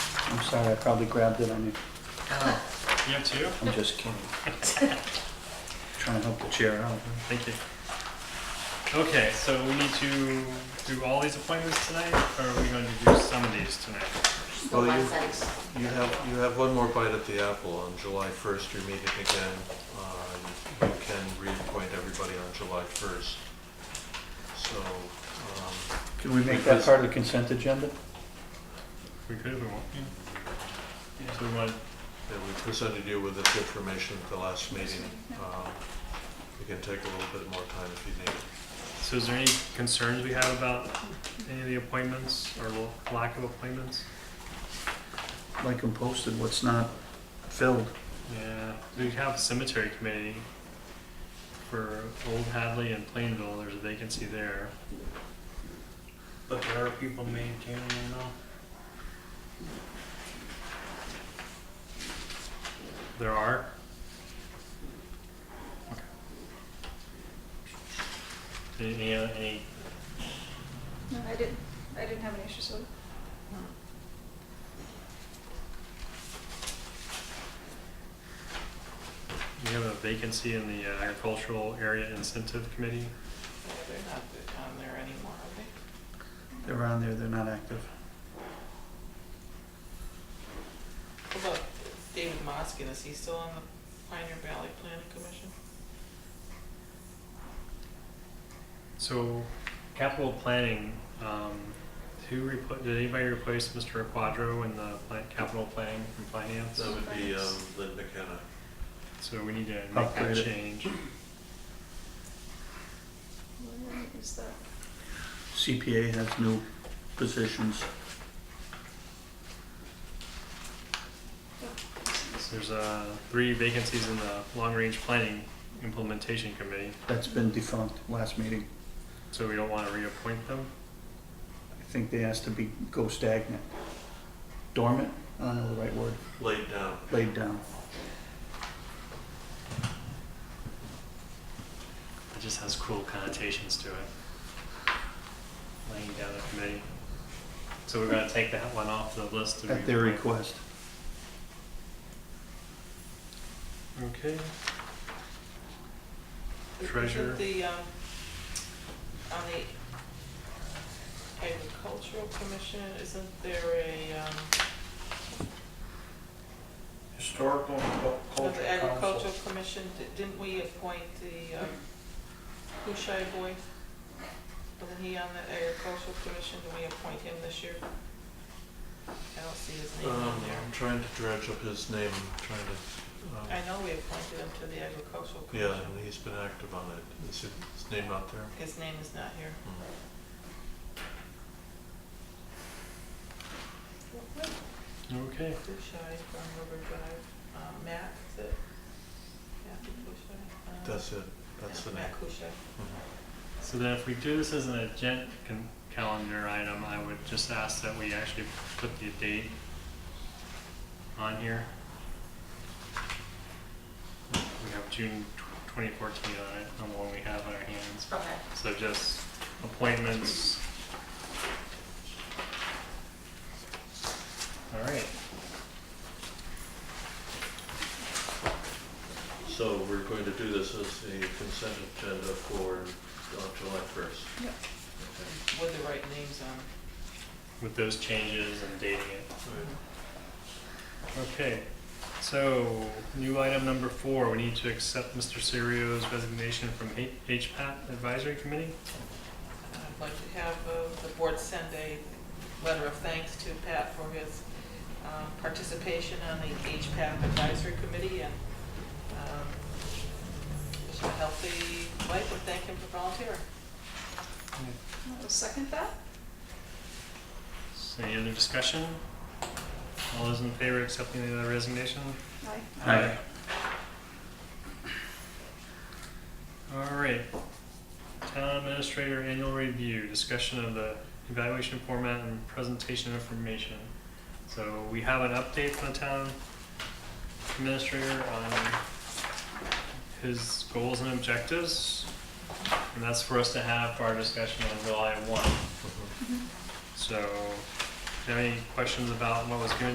I'm sorry, I probably grabbed it on you. You have two? I'm just kidding. Trying to help the chair out. huh? Thank you. Okay, so we need to do all these appointments tonight, or are we going to do some of these tonight? Well, One you- sentence. You have, you have one more bite at the apple. On July 1st, you're meeting again. Uh, You can reappoint everybody on July 1st. So, um, Can we make that part of the consent agenda? We could if we want. So we want, yeah, we presented you with this information at the last meeting. Um, We can take a little bit more time if you need it. so is there any concerns we have about any of the appointments or l- lack of appointments? Like and posted, what's not filled? Yeah, we have cemetery committee for Old Hadley and Plainville, there's a vacancy there. But there are people maintaining them now. There are. Any, any other- any, No, I didn't, I didn't have any issues with it. we have a vacancy in the uh, agricultural area incentive committee? Yeah, they're not on there anymore, are they? They're on there, they're not active. What about David Moskin, is he still on the Pioneer Valley Planning Commission? So, capital planning, um, who repl- did anybody replace Mr. Quadro in the pla- capital planning from finance? That would be um, Lynn McKenna. So we need to make Upgrade that it. change. Where is that? CPA has new positions. There's, uh, three vacancies in the long-range planning implementation committee, That's been defunct last meeting. so we don't wanna reappoint them? I think they asked to be, go stagnant. Dormant, I don't know the right word, Laid down. laid down. It just has cool connotations to it. Laying down a committee. So we're gonna take that one off the list. to At their reappoint. request. Okay, Isn't Treasurer. The, um, on the Agricultural Commission, isn't there a, um, Historical and Cul- on cultural the council. Agricultural Commission, di- didn't we appoint the, um, Hushai boy? Wasn't he on the Agricultural Commission, did we appoint him this year? I don't see his name Um, on there. I'm trying to dredge up his name, I'm trying to, I um, know we appointed him to the Agricultural yeah, Commission. and he's been active on it. Is his his name out there? Hmm, His name is not here. okay. Bushai from River Drive, um, Matt, is it? Matthew Bushai? um, That's it, that's yeah, the name. Matt Bushai. Mhm. So then if we do this as an agenda con- calendar item, I would just ask that we actually put the date on here. We have June twenty fourteen on it, on the one we have on our hands. Okay. So just appointments. All right, So we're going to do this as a consent agenda for uh, July 1st. With the right names on. it. with those changes and dating it. Right. Okay, so new item number four, we need to accept Mr. Sirio's resignation from H- HPAT Advisory Committee. I'd like to have uh, the board send a letter of thanks to Pat for his um, participation on the HPAP Advisory Committee and um, wish him a healthy life and thank him for volunteering. I'll second that. So Any other discussion? All those in favor of accepting the resignation? Aye. Aye. All right. Town Administrator Annual Review, discussion of the evaluation format and presentation information. So we have an update from the town administrator on his goals and objectives. And that's for us to have for our discussion on July one. So, do you have any questions about what was given